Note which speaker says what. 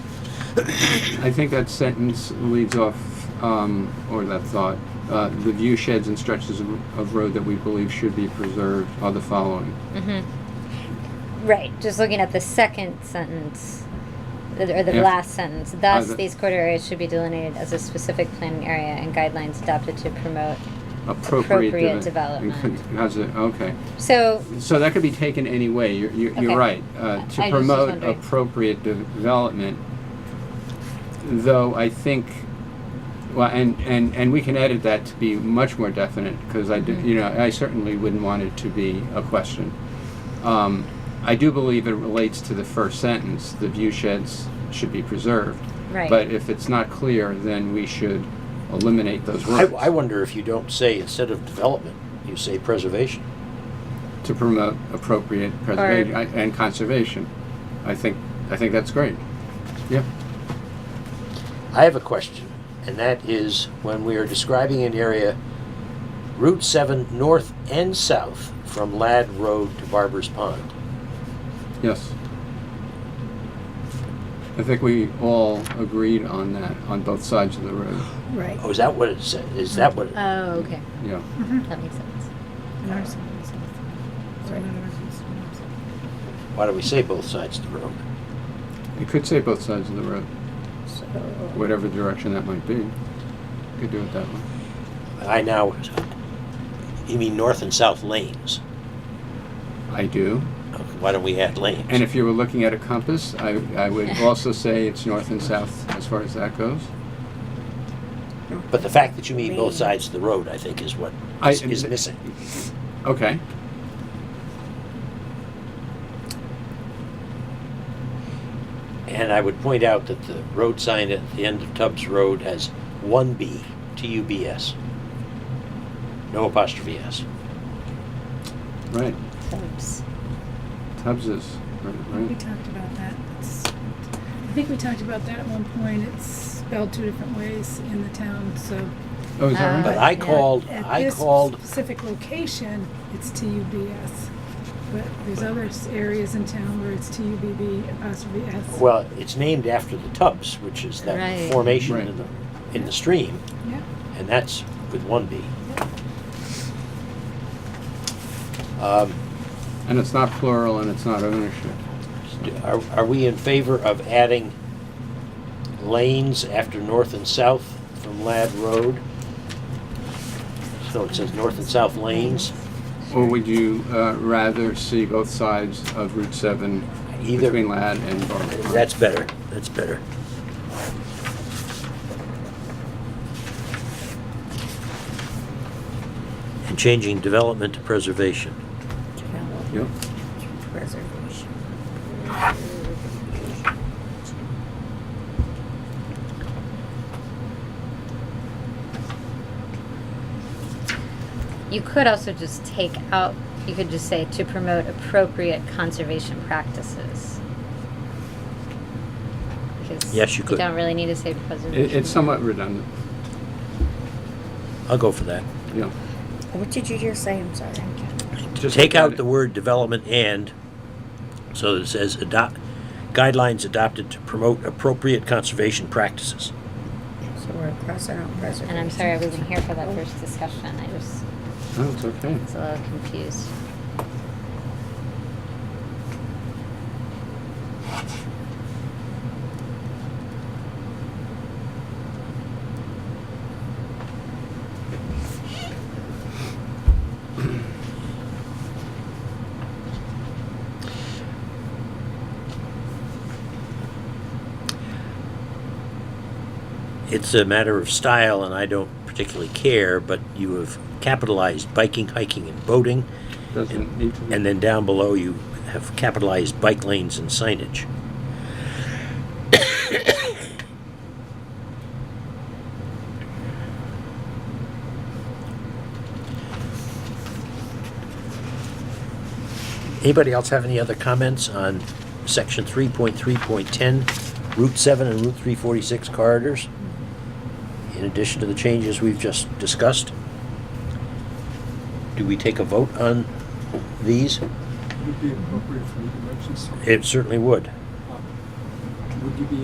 Speaker 1: I think that sentence leads off, um, or that thought, uh, the view sheds and stretches of, of road that we believe should be preserved are the following.
Speaker 2: Right, just looking at the second sentence, th- or the
Speaker 1: Yeah.
Speaker 2: last sentence. Thus,
Speaker 1: the-
Speaker 2: these corridor areas should be delineated as a specific planning area and guidelines adopted to promote.
Speaker 1: Appropriate,
Speaker 2: Appropriate
Speaker 1: deve-
Speaker 2: development.
Speaker 1: How's it, okay.
Speaker 2: So,
Speaker 1: So that could be taken any way, you're, you're,
Speaker 2: Okay.
Speaker 1: you're right. Uh,
Speaker 2: I
Speaker 1: to
Speaker 2: just was
Speaker 1: promote
Speaker 2: wondering.
Speaker 1: appropriate de- development, though I think, well, and, and, and we can edit that to be much more definite, because I
Speaker 2: Mm-hmm.
Speaker 1: do, you know, I certainly wouldn't want it to be a question. Um, I do believe it relates to the first sentence, the view sheds should be preserved.
Speaker 2: Right.
Speaker 1: But if it's not clear, then we should eliminate those
Speaker 3: I,
Speaker 1: words
Speaker 3: I wonder if you don't say, instead of development, you say preservation.
Speaker 1: to promote appropriate preservation and conservation. I think, I think that's great. Yeah.
Speaker 3: I have a question, and that is when we are describing an area, Route 7 north and south from Ladd Road to Barber's Pond.
Speaker 1: Yes. I think we all agreed on that, on both sides of the road.
Speaker 4: Right.
Speaker 3: Oh, is that what it said? Is that what? It,
Speaker 2: oh, okay,
Speaker 1: Yeah.
Speaker 2: that makes sense.
Speaker 4: North, south, south.
Speaker 3: Right.
Speaker 4: North, south.
Speaker 3: why do we say both sides of the road?
Speaker 1: You could say both sides of the road,
Speaker 4: So,
Speaker 1: whatever direction that might be. Could do it that way.
Speaker 3: I now. You mean north and south lanes?
Speaker 1: I do.
Speaker 3: Okay, Why don't we add lanes?
Speaker 1: And if you were looking at a compass, I, I would also say it's north and south as far as that goes.
Speaker 3: but the fact that you mean both sides of the road, I think, is what
Speaker 1: I-
Speaker 3: is is missing.
Speaker 1: Okay.
Speaker 3: And I would point out that the road sign at the end of Tubbs Road has one B, T-U-B-S. No apostrophe S.
Speaker 1: Right.
Speaker 2: Oops.
Speaker 1: Tubbs is right.
Speaker 4: we
Speaker 1: right.
Speaker 4: talked about that. It's- I think we talked about that at one point. It's spelled two different ways in the town, so.
Speaker 1: Oh, is that
Speaker 3: But
Speaker 1: right?
Speaker 3: I
Speaker 2: Yeah.
Speaker 3: called,
Speaker 4: At
Speaker 3: I
Speaker 4: this
Speaker 3: called,
Speaker 4: Specific location, it's TUBS. But there's other s- areas in town where it's TUBB apostrophe S.
Speaker 3: well, it's named after the Tubbs, which is that
Speaker 2: Right.
Speaker 3: formation
Speaker 1: Right.
Speaker 3: in the, in the stream,
Speaker 4: Yeah.
Speaker 3: and that's with one B. Um,
Speaker 1: And it's not plural and it's not ownership.
Speaker 3: Are, are we in favor of adding lanes after north and south from Ladd Road? So it says north and south lanes,
Speaker 1: Or would you uh, rather see both sides of Route 7
Speaker 3: Either.
Speaker 1: between Ladd and Barber?
Speaker 3: that's better, that's better. And changing development to preservation.
Speaker 1: Yep.
Speaker 5: Preservation.
Speaker 2: You could also just take out, you could just say to promote appropriate conservation practices. Because
Speaker 3: Yes, you could.
Speaker 2: don't really need to say preservation.
Speaker 1: It- It's somewhat redundant,
Speaker 3: I'll go for that.
Speaker 1: yeah.
Speaker 5: What did you just say? I'm sorry.
Speaker 1: Just
Speaker 3: Take
Speaker 1: add
Speaker 3: out
Speaker 1: it.
Speaker 3: the word development and, so it says adopt, guidelines adopted to promote appropriate conservation practices.
Speaker 5: So we're crossing out preservation.
Speaker 2: And I'm sorry I wasn't here for that first discussion, I just
Speaker 1: No, Oh, it's okay.
Speaker 2: was a little confused.
Speaker 3: It's a matter of style, and I don't particularly care, but you have capitalized biking, hiking, and boating,
Speaker 1: Doesn't need to be.
Speaker 3: and then down below you have capitalized bike lanes and signage. Anybody else have any other comments on section 3.3.10, Route 7 and Route 346 corridors? In addition to the changes we've just discussed? Do we take a vote on these?
Speaker 6: Would it be appropriate for you to mention something?
Speaker 3: It certainly would.
Speaker 6: Would you be